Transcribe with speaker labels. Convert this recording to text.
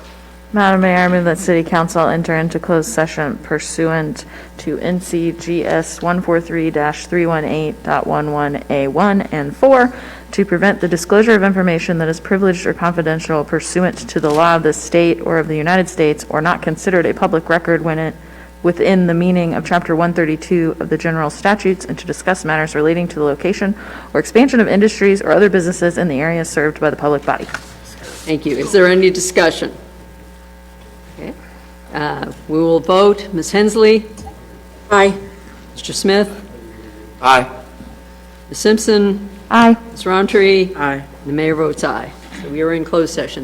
Speaker 1: Madam Mayor, I move that City Council enter into closed session pursuant to NCGS 143-318.11A1 and 4 to prevent the disclosure of information that is privileged or confidential pursuant to the law of this state or of the United States or not considered a public record when it, within the meaning of Chapter 132 of the General Statutes and to discuss matters relating to the location or expansion of industries or other businesses in the area served by the public body.
Speaker 2: Thank you. Is there any discussion? Okay. Uh, We will vote. Ms. Hensley? Aye. Mr. Smith?
Speaker 3: Aye.
Speaker 2: Ms. Simpson?
Speaker 1: Aye.
Speaker 2: Ms. Roundtree?
Speaker 3: Aye.
Speaker 2: And the mayor votes aye. So we are in closed session.